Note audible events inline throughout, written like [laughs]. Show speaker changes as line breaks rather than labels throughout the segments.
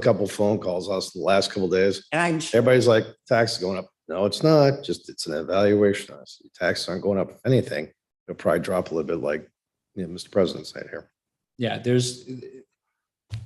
couple phone calls us the last couple days.
And I'm, sh-
Everybody's like, tax is going up. No, it's not. Just it's an evaluation. I said, Taxes aren't going up anything. It'll probably drop a little bit like, you know, Mr. President said here.
Yeah, there's,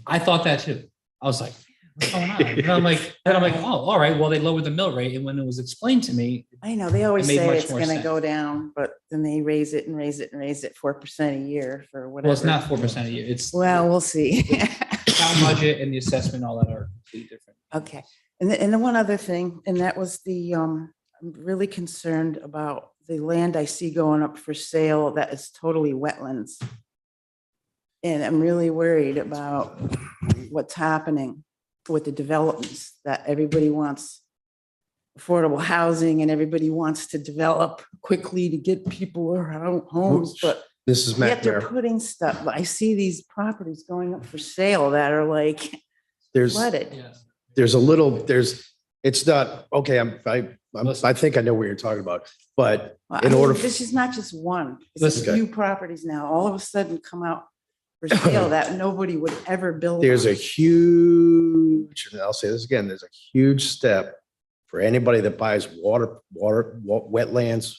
I thought that too. I was like, what's going on? And I'm like, and I'm like, oh, all right, well, they lowered the mill rate. And when it was explained to me,
I know, they always
It made
say
much
it's
more
gonna
sense.
go down, but then they raise it and raise it and raise it four percent a year for whatever.
well, it's not four percent a year. It's
Well, we'll see.
the town budget and the assessment, all that are completely different.
Okay, and then, and then one other thing, and that was the, um, I'm really concerned about the land I see going up for sale that is totally wetlands. And I'm really worried about what's happening with the developments that everybody wants affordable housing and everybody wants to develop quickly to get people around homes, but
This is
yet
Matt
they're
Mayor.
putting stuff, I see these properties going up for sale that are like
There's,
flooded.
Yes.
there's a little, there's, it's not, okay, I'm, I, I'm-
Listen.
I think I know what you're talking about, but
Well,
in
I mean,
order f-
This is not just one, it's
Listen.
a few properties now, all of a sudden come out for
[laughs]
sale that nobody would ever build.
there's
on.
a huge, and I'll say this again, there's a huge step for anybody that buys water, water, wa- wetlands,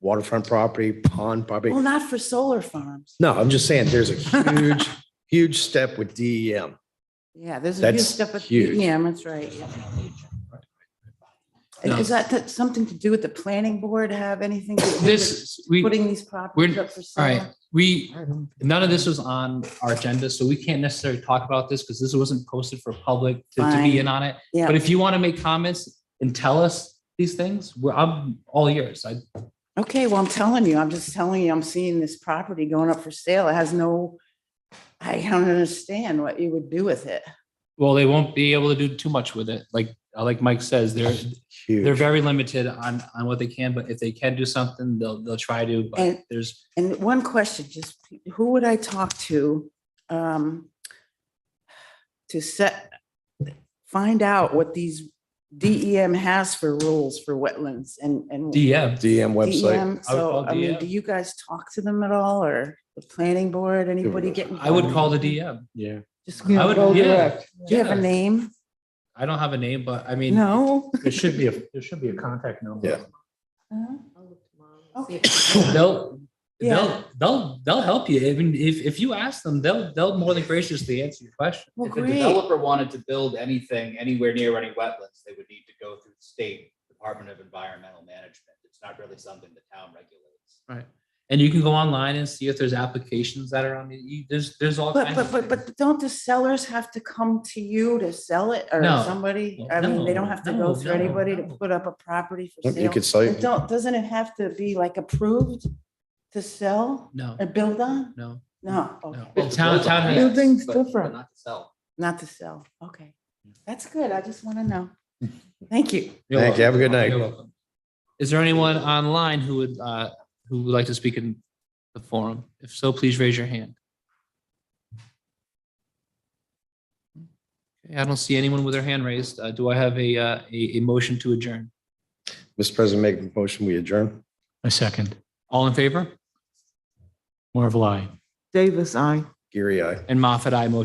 waterfront property, pond property.
Well, not for solar farms.
No, I'm just saying, there's a huge, [laughs] huge step with E DEM.
Yeah, there's a huge
That's
stuff with,
huge.
yeah, that's right. yeah. And
No.
Is that that something to do with the planning board have anything? to do with
This, we, all
Putting these properties up for
right,
sale?
we, none of this was on our agenda, so we can't necessarily talk about this because this wasn't posted for public to to
Fine.
be in on it. But
Yeah,
if you want to make comments and tell us these things, we're, I'm all yours. I,
okay, well, I'm telling you, I'm just telling you, I'm seeing this property going up for sale. It has no, I don't understand what you would do with it.
well, they won't be able to do too much with it. Like, uh, like Mike says, they're, they're
Huge.
very limited on, on what they can, but if they can do something, they'll, they'll try to, but
And-
there's,
And one question, just who would I talk to? um, To set, find out what these DEM has for rules for wetlands and, and.
DM,
DEM E website.
DEM, So,
call E
I mean,
DEM.
do you guys talk to them at all or the planning board, anybody getting?
I would call the DM.
Yeah.
Just-
I would,
Do
yeah.
you have a
E yeah.
name?
I don't have a name, but I mean,
No?
there should be a, there should be a contact number.
Yeah.
Okay.
They'll,
Yeah.
they'll, they'll, they'll help you. I mean, if, if you ask them, they'll, they'll more than graciously answer your question.
Well,
If a
great.
developer wanted to build anything anywhere near any wetlands, they would need to go through the state Department of Environmental Management. It's not really something the town regulates.
And you can go online and see if there's applications that are on the, you- there's, there's all
But,
kinds of
but, but,
things.
but don't the sellers have to come to you to sell it or
No.
somebody?
Well,
I mean, they
no,
don't have to go
no,
through
no,
anybody to
no.
put up a property for
You
sale.
could say,
And don't, doesn't it have to be like approved to sell
No,
or build on?
no,
No,
no.
okay,
The town, town has
Building's
But- but
different.
Not to sell.
not to sell. Okay, that's good. I just want to
[laughs]
know. Thank you.
You're
Thank you. Have a good
welcome.
night.
You're welcome. Is there anyone online who would, uh, who would like to speak in the forum? If so, please raise your hand. Okay, I don't see anyone with their hand raised. Uh, do I have a, uh, a, a motion to adjourn?
Mr. President, make a motion, we adjourn.
A second.
All in favor?
More of a lie.
Davis, I.
Geary, aye.
And Moffat, I motion